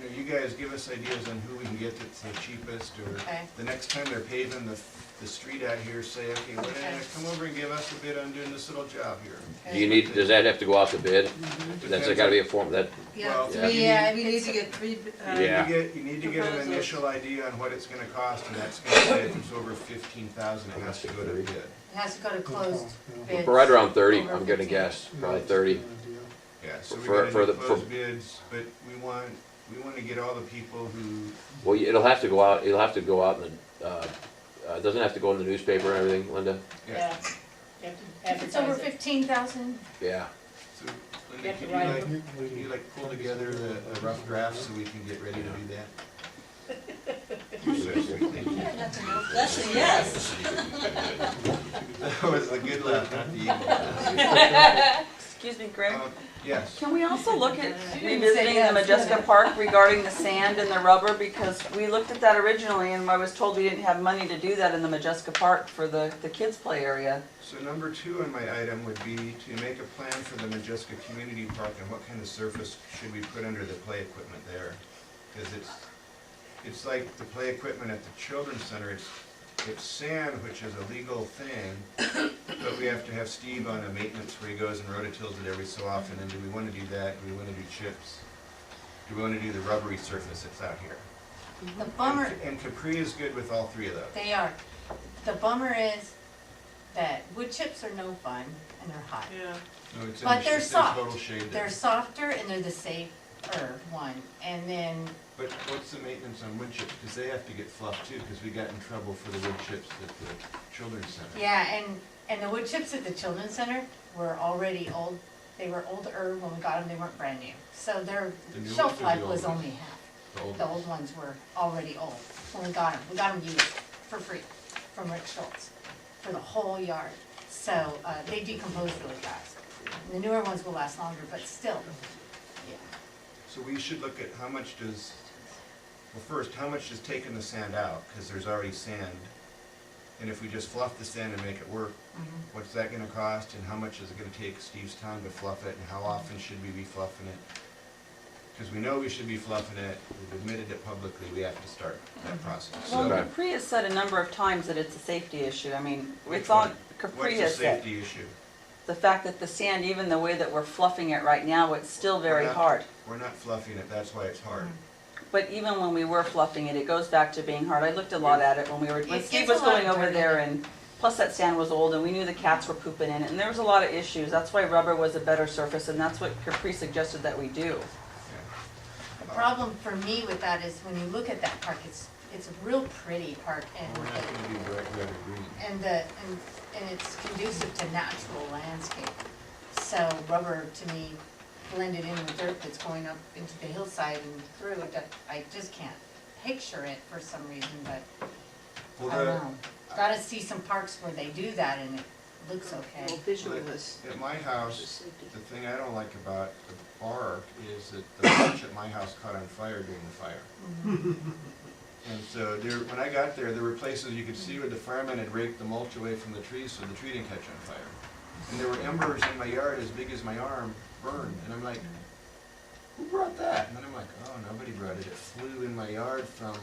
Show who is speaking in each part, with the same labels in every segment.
Speaker 1: know, you guys give us ideas on who we can get that's the cheapest, or
Speaker 2: Okay.
Speaker 1: the next time they're paving the, the street out here, say, okay, well,
Speaker 2: Okay.
Speaker 1: come over and give us a bid on doing this little job here.
Speaker 2: Okay.
Speaker 3: Do you need, does that have to go out to bid? That's
Speaker 1: Depends
Speaker 3: gotta be
Speaker 1: on-
Speaker 3: a form, that,
Speaker 2: Yeah,
Speaker 1: Well,
Speaker 3: Yeah.
Speaker 2: three, yeah, we need to get three, uh,
Speaker 3: Yeah.
Speaker 1: You get, you need to get an
Speaker 2: Proposals.
Speaker 1: initial idea on what it's gonna cost, and that's gonna say if it's over fifteen thousand, it has to go to bid.
Speaker 2: It has to go to closed bids.
Speaker 3: but right around thirty,
Speaker 2: Over
Speaker 3: I'm gonna
Speaker 2: 15.
Speaker 3: guess, probably thirty.
Speaker 1: Yeah, so we
Speaker 3: For-
Speaker 1: gotta
Speaker 3: for
Speaker 1: do
Speaker 3: the- for-
Speaker 1: closed bids, but we want, we wanna get all the people who,
Speaker 3: Well, you- it'll have to go out, it'll have to go out in the, uh, uh, it doesn't have to go in the newspaper and everything, Linda?
Speaker 1: yeah,
Speaker 4: Yeah. You have to
Speaker 5: If it's over
Speaker 4: advertise it.
Speaker 5: fifteen thousand,
Speaker 3: Yeah,
Speaker 1: so,
Speaker 4: You
Speaker 1: Linda,
Speaker 4: have to
Speaker 1: can you
Speaker 4: write
Speaker 1: like, can you like pull together the, the rough draft so we can get ready to do that?
Speaker 2: That's a yes.
Speaker 1: That was the good laugh, not the evil laugh.
Speaker 6: Excuse me, Greg.
Speaker 1: Um, Yes,
Speaker 6: Can we also look at
Speaker 2: didn't say
Speaker 6: revisiting the
Speaker 2: yes,
Speaker 6: Majeska
Speaker 2: yeah.
Speaker 6: Park regarding the sand and the rubber? Because we looked at that originally and I was told we didn't have money to do that in the Majeska Park for the, the kids' play area.
Speaker 1: so number two on my item would be to make a plan for the Majeska Community Park and what kind of surface should we put under the play equipment there? Because it's, it's like the play equipment at the children's center, it's, it's sand, which is a legal thing, but we have to have Steve on a maintenance where he goes and rototills it every so often, and do we wanna do that, do we wanna do chips? Do we wanna do the rubbery surface that's out here?
Speaker 2: The bummer,
Speaker 1: And- And Capri is good with all three of those.
Speaker 2: they are, the bummer is that wood chips are no fun and they're hot.
Speaker 4: Yeah.
Speaker 1: No, it's in
Speaker 2: But
Speaker 1: the sh-
Speaker 2: they're
Speaker 1: it's in
Speaker 2: soft.
Speaker 1: Total shade there.
Speaker 2: They're softer and they're the safer one, and then,
Speaker 1: But what's the maintenance on wood chips? Because they have to get fluffed too, because we got in trouble for the wood chips at the children's center.
Speaker 2: yeah, and, and the wood chips at the children's center were already old, they were older when we got them, they weren't brand new. So their
Speaker 1: The new ones or
Speaker 2: shelf
Speaker 1: the
Speaker 2: life
Speaker 1: old
Speaker 2: was
Speaker 1: ones?
Speaker 2: only half.
Speaker 1: The old
Speaker 2: The
Speaker 1: ones.
Speaker 2: old ones were already old when we got them. We got them used for free from Rick Schultz for the whole yard. So uh, they decompose really fast. The newer ones will last longer, but still, yeah.
Speaker 1: So we should look at how much does, well, first, how much does taking the sand out? Because there's already sand. And if we just fluff the sand and make it work, what's that gonna cost? And how much is it gonna take Steve's time to fluff it? And how often should we be fluffing it? Because we know we should be fluffing it. We've admitted it publicly. We have to start that process.
Speaker 6: Well,
Speaker 1: So
Speaker 3: Okay.
Speaker 6: Capri has said a number of times that it's a safety issue. I mean,
Speaker 1: Which
Speaker 6: it's on,
Speaker 1: one?
Speaker 6: Capri
Speaker 1: what's the
Speaker 6: has said.
Speaker 1: safety issue?
Speaker 6: The fact that the sand, even the way that we're fluffing it right now, it's still very
Speaker 1: We're not-
Speaker 6: hard.
Speaker 1: We're not fluffing it, that's why it's hard.
Speaker 2: Mm.
Speaker 6: But even when we were fluffing it, it goes back to being hard. I looked a lot at it when we were, when
Speaker 2: It
Speaker 6: Steve
Speaker 2: gets a
Speaker 6: was
Speaker 2: lot
Speaker 6: going over
Speaker 2: dirty.
Speaker 6: there and, plus that sand was old and we knew the cats were pooping in it and there was a lot of issues. That's why rubber was a better surface and that's what Capri suggested that we do.
Speaker 2: The problem for me with that is when you look at that park, it's, it's a real pretty park and
Speaker 1: We're not gonna be bright red or green.
Speaker 2: and the, and, and it's conducive to natural landscape. So rubber, to me, blended in with dirt that's going up into the hillside and through, that- I just can't picture it for some reason, but
Speaker 1: Well,
Speaker 2: I don't
Speaker 1: the-
Speaker 2: know. Gotta see some parks where they do that and it looks okay.
Speaker 1: At my house, the thing I don't like about the bar is that the lunch at my house caught on fire during the fire.
Speaker 2: Mm-hmm.
Speaker 1: And so there, when I got there, there were places you could see where the firemen had raked the mulch away from the trees so the tree didn't catch on fire. And there were embers in my yard as big as my arm burned, and I'm like, who brought that? And then I'm like, oh, nobody brought it, it flew in my yard from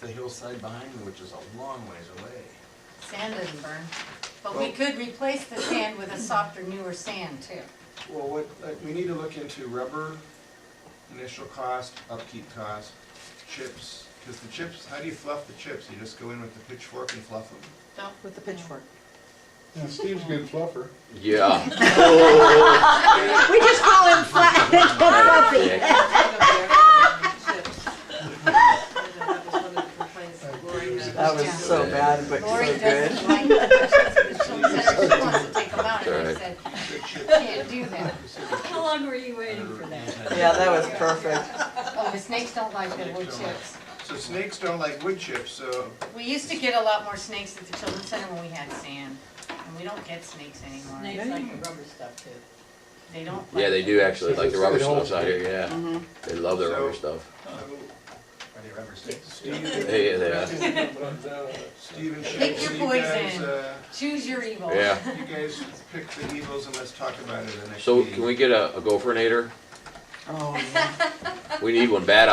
Speaker 1: the hillside behind me, which is a long ways away.
Speaker 2: Sand doesn't burn, but we
Speaker 1: Well-
Speaker 2: could replace the sand with a softer, newer sand too.
Speaker 1: Well, what, uh, we need to look into rubber, initial cost, upkeep cost, chips, because the chips, how do you fluff the chips? You just go in with the pitchfork and fluff them?
Speaker 2: Don't,
Speaker 6: With the pitchfork.
Speaker 7: Yeah, Steve's a good fluffer.
Speaker 3: yeah.
Speaker 8: We just call him flat. Fluffy.
Speaker 3: Yeah.
Speaker 6: That was so bad, but
Speaker 2: Lori
Speaker 6: so good.
Speaker 2: doesn't like the dishes, she said she wants to take them out, and I
Speaker 3: Sorry.
Speaker 2: said,
Speaker 1: The chips-
Speaker 2: can't do that.
Speaker 1: you said the chips
Speaker 5: how long were you waiting
Speaker 1: are
Speaker 5: for that?
Speaker 1: anti-
Speaker 6: Yeah, that was perfect.
Speaker 2: Oh, the snakes don't like the wood
Speaker 1: Snakes don't like-
Speaker 2: chips.
Speaker 1: So snakes don't like wood chips, so
Speaker 2: We used to get a lot more snakes at the children's center when we had sand, and we don't get snakes anymore.
Speaker 4: Snakes like the rubber stuff too.
Speaker 2: They don't.
Speaker 3: Yeah,
Speaker 2: like
Speaker 3: they
Speaker 2: it.
Speaker 3: do actually, like the rubber
Speaker 7: It's an old
Speaker 3: stuffs out here, yeah.
Speaker 6: Mhm.
Speaker 3: They love their rubber
Speaker 1: So-
Speaker 3: stuff.
Speaker 1: oh, Are they rubber snakes?
Speaker 3: Yeah, they are.
Speaker 1: Steven, should
Speaker 2: Pick your
Speaker 1: you guys,
Speaker 2: poison.
Speaker 1: uh,
Speaker 2: Choose your evil.
Speaker 3: Yeah.
Speaker 1: you guys pick the evils and let's talk about it in the next
Speaker 3: So
Speaker 1: meeting.
Speaker 3: can we get a, a gopherninator?
Speaker 6: Oh, yeah.
Speaker 3: We need one bad